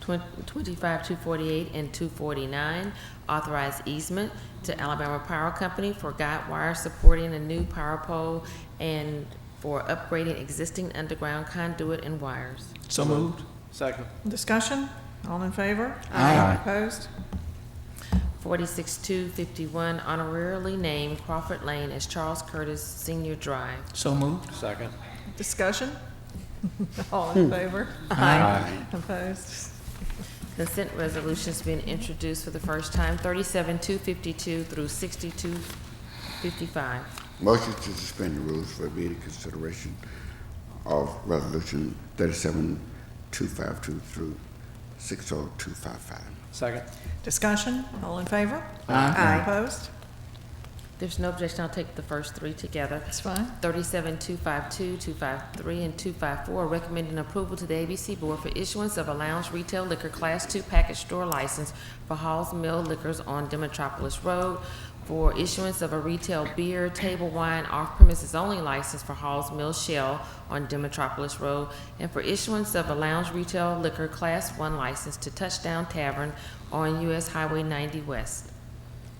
twen- 25, 248, and 249, authorize easement to Alabama Power Company for guide wire supporting a new power pole and for upgrading existing underground conduit and wires. So moved. Second. Discussion? All in favor? Aye. Opposed? 46251, honorarily named Crawford Lane as Charles Curtis Senior Drive. So moved. Second. Discussion? All in favor? Hmm. Aye. Opposed? Consent resolutions being introduced for the first time, 37252 through 6255. Motion to suspend the rules for immediate consideration of Resolution 37252 through 60255. Second. Discussion? All in favor? Aye. Opposed? There's no objection, I'll take the first three together. That's fine. 37252, 253, and 254, recommending approval to the ABC Board for issuance of a lounge retail liquor Class II package store license for Hall's Mill Liquors on Demetropolis Road, for issuance of a retail beer, table wine, off-premises only license for Hall's Mill Shell on Demetropolis Road, and for issuance of a lounge retail liquor Class I license to Touchdown Tavern on US Highway 90 West.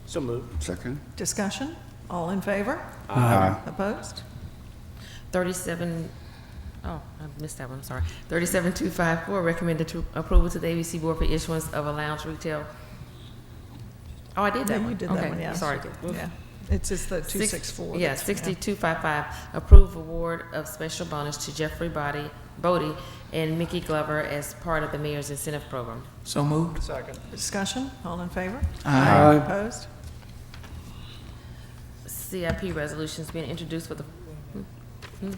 So moved. Second? Discussion? All in favor? Opposed? Thirty-seven, oh, I missed that one, I'm sorry. Thirty-seven two five four, recommended to approval to the ABC Board for issuance of a lounge retail. Oh, I did that Yeah, one. you did that Okay, one, yes. Sorry. Yeah. It's just the Six- 264. Yeah, that's- sixty-two five five, approve award of special bonus to Jeffrey Body, Bodie and Mickey Glover as part of the mayor's incentive program. So moved. Second. Discussion? All in favor? Aye. Opposed? CIP resolutions being introduced for the. hmm, hmm.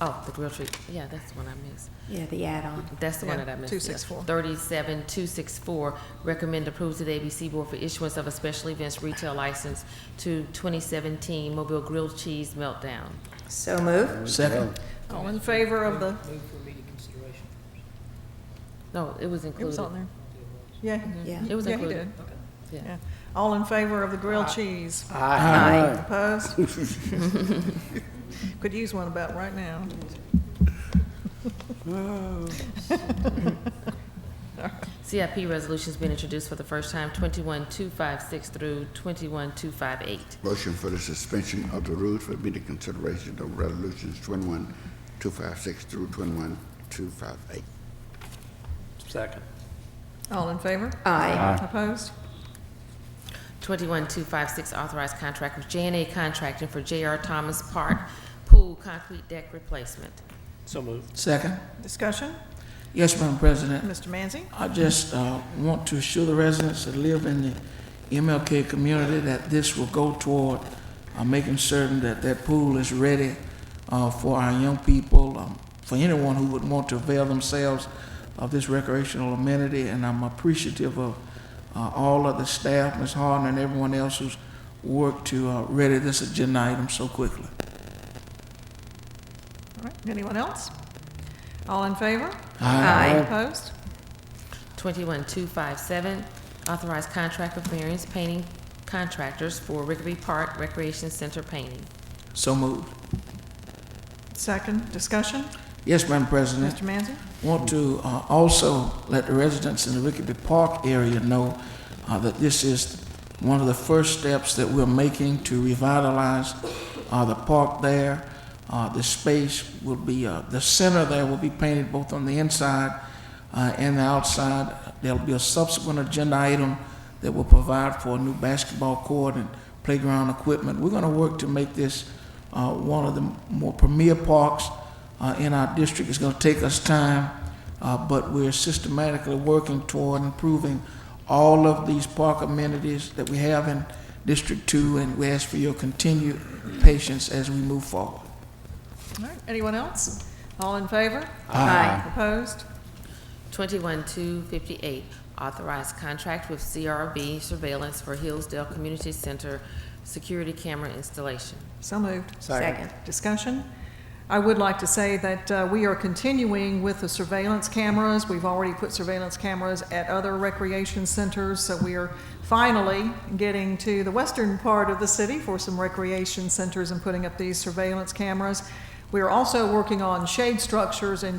Oh, the grill treat, yeah, that's the one I missed. Yeah, the add-on. That's the one Yeah, that I missed. 264. Thirty-seven, two six four, recommend approval to the ABC Board for issuance of a special events retail license to twenty seventeen Mobile Grilled Cheese Meltdown. So moved. Second. All in favor of the, No, it was it was included. on there. Yeah. Yeah. It was Yeah, he included. did. Yeah. Yeah. All in favor of the grilled cheese? Aye. Opposed? Could use one about right now. CIP resolution's been introduced for the first time, twenty-one, two five six through twenty-one, two five eight. Motion for the suspension of the rules for immediate consideration of Resolutions 21256 through 21258. Second. All in favor? Aye. Opposed? 21256, authorized contract with j and A Contracting for J.R. Thomas Park Pool Concrete Deck Replacement. So moved. Second. Discussion? Yes, Madam President. Mr. Manzi? I just uh, want to assure the residents that live in the MLK community that this will go toward uh, making certain that that pool is ready uh, for our young people, um, for anyone who would want to avail themselves of this recreational amenity. And I'm appreciative of uh, all of the staff, Ms. Harden, and everyone else who's worked to uh, ready this agenda item so quickly. All right, anyone else? All in favor? Aye. Opposed? 21257, authorized contract with various painting contractors for Rigby Park Recreation Center painting. So moved. Second, discussion? Yes, Madam President. Mr. Manzi? want to uh, also let the residents in the Rickaby Park area know uh, that this is one of the first steps that we're making to revitalize uh, the park there. Uh, the space will be, uh, the center there will be painted both on the inside uh, and the outside. There'll be a subsequent agenda item that will provide for a new basketball court and playground equipment. We're going to work to make this uh, one of the more premier parks uh, in our district. It's going to take us time, uh, but we're systematically working toward improving all of these park amenities that we have in District Two, and we ask for your continued patience as we move forward. All right, anyone else? All in favor? Aye. Opposed? 21258, authorized contract with CRB Surveillance for Hillsdale Community Center security camera installation. So moved. Second. Discussion? I would like to say that uh, we are continuing with the surveillance cameras. We've already put surveillance cameras at other recreation centers, so we are finally getting to the western part of the city for some recreation centers and putting up these surveillance cameras. We are also working on shade structures in